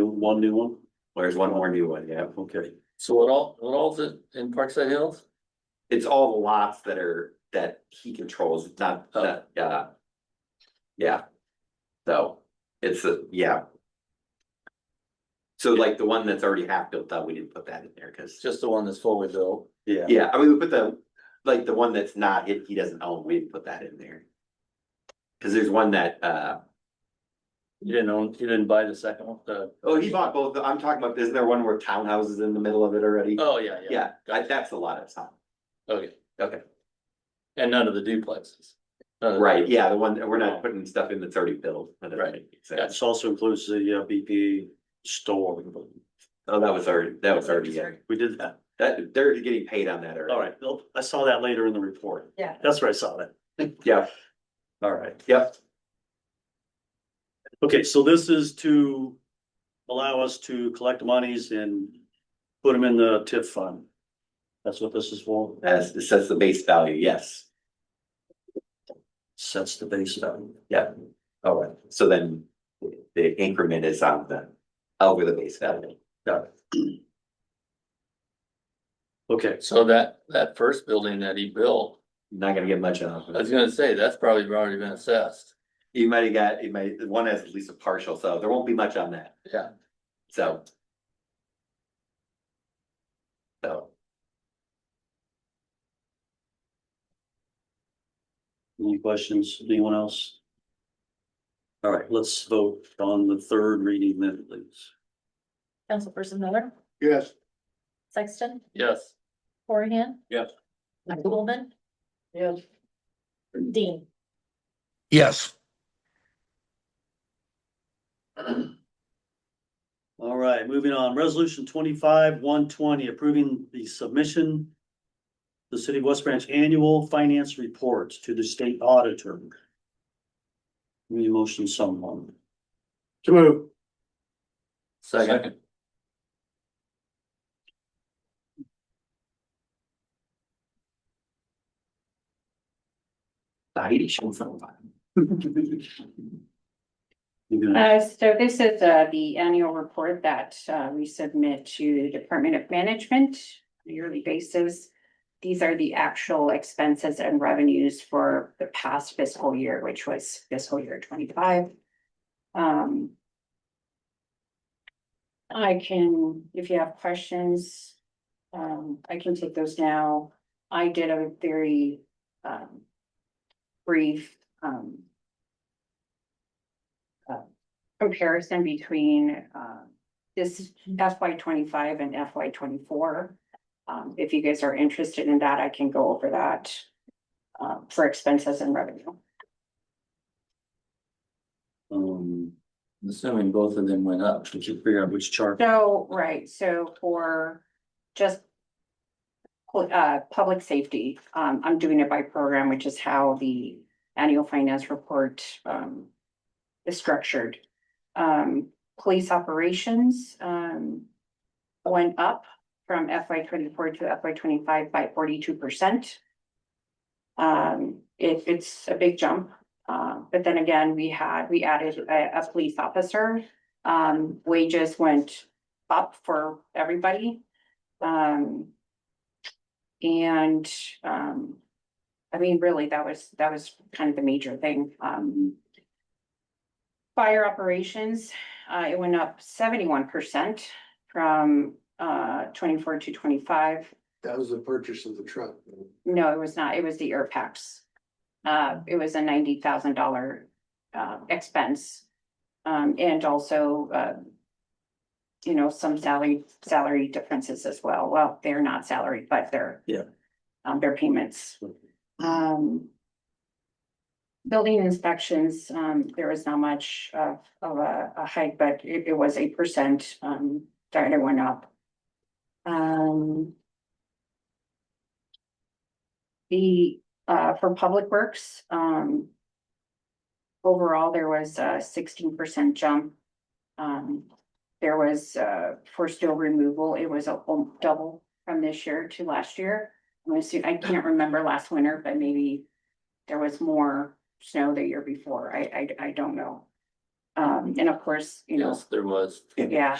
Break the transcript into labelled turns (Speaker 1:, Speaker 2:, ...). Speaker 1: one new one?
Speaker 2: There's one more new one, yeah.
Speaker 1: Okay,
Speaker 3: So what all, what all's it in Parkside Hills?
Speaker 2: It's all the lots that are, that he controls, it's not,
Speaker 3: Oh.
Speaker 2: that, yeah. Yeah. So, it's a, yeah. So like the one that's already half built out, we didn't put that in there,
Speaker 3: It's
Speaker 2: cause,
Speaker 3: just the one that's fully built.
Speaker 1: yeah.
Speaker 2: yeah, I mean, we put the, like the one that's not, he, he doesn't own, we didn't put that in there. Cause there's one that, uh,
Speaker 3: You didn't own, you didn't buy the second one, the,
Speaker 2: oh, he bought both, I'm talking about, isn't there one where townhouses in the middle of it already?
Speaker 3: oh, yeah, yeah.
Speaker 2: Yeah, I- that's a lot of time.
Speaker 3: Okay,
Speaker 2: Okay.
Speaker 3: and none of the duplexes. None of the-
Speaker 2: Right, yeah, the one, we're not putting stuff in that's already built. that doesn't
Speaker 3: Right.
Speaker 2: make sense.
Speaker 1: This also includes the uh, BPA store.
Speaker 2: Oh, that was already, that was already, in.
Speaker 1: We did that.
Speaker 2: that, they're getting paid on that already.
Speaker 1: All right, well, I saw that later in the report.
Speaker 4: Yeah.
Speaker 1: That's where I saw that.
Speaker 2: Yeah,
Speaker 1: All right.
Speaker 2: yeah,
Speaker 1: Okay, so this is to allow us to collect monies and put them in the TIF fund. That's what this is for,
Speaker 2: as, it says the base value, yes,
Speaker 1: sets the base value.
Speaker 2: yeah. All right, so then the increment is on the, over the base value.
Speaker 1: Okay,
Speaker 3: So that, that first building that he built,
Speaker 2: Not gonna get much off
Speaker 3: I
Speaker 2: of it.
Speaker 3: was gonna say, that's probably already been assessed.
Speaker 2: You might have got, it might, one has at least a partial, so there won't be much on that,
Speaker 3: Yeah,
Speaker 2: so. So,
Speaker 1: any questions, anyone else? All right, let's vote on the third reading then, please.
Speaker 4: Councilperson Miller,
Speaker 5: Yes.
Speaker 4: Sexton,
Speaker 3: yes.
Speaker 4: Corrigan.
Speaker 1: Yes.
Speaker 4: Golden. Yes. Dean.
Speaker 5: Yes.
Speaker 1: All right, moving on, resolution twenty-five, one twenty, approving the submission. The city of West Branch annual finance reports to the state auditor. Need a motion someone,
Speaker 5: To move.
Speaker 3: Second,
Speaker 2: Heidi shows up.
Speaker 1: You gonna-
Speaker 6: Uh, so this is, uh, the annual report that, uh, we submit to the Department of Management on a yearly basis. These are the actual expenses and revenues for the past fiscal year, which was fiscal year twenty-five. Um. I can, if you have questions, um, I can take those now. I did a very, um, brief, um, uh, comparison between um, this FY twenty-five and FY twenty-four. Um, if you guys are interested in that, I can go over that um, for expenses and revenue.
Speaker 1: Um,
Speaker 3: I'm assuming both of them went up.
Speaker 1: did you figure out which chart?
Speaker 6: So, right, so for just uh, public safety, um, I'm doing it by program, which is how the annual finance report um is structured. Um, police operations um went up from FY twenty-four to FY twenty-five by forty-two percent. Um, it- it's a big jump, uh, but then again, we had, we added a, a police officer. Um, wages went up for everybody. Um. And, um, I mean, really, that was, that was kind of the major thing, um. Fire operations, uh, it went up seventy-one percent from, uh, twenty-four to twenty-five.
Speaker 5: That was the purchase of the truck.
Speaker 6: No, it was not. It was the air packs. Uh, it was a ninety thousand dollar uh expense. Um, and also uh. You know, some salary, salary differences as well. Well, they're not salary, but they're.
Speaker 1: Yeah.
Speaker 6: Um, their payments. Um. Building inspections, um, there was not much of of a a hike, but it it was eight percent, um, that it went up. Um. The, uh, for Public Works, um. Overall, there was a sixteen percent jump. Um, there was, uh, for steel removal, it was a whole double from this year to last year. I'm assuming, I can't remember last winter, but maybe there was more snow the year before. I, I, I don't know.
Speaker 3: Um, and of course, you know,
Speaker 6: Yes, there was.
Speaker 3: yeah.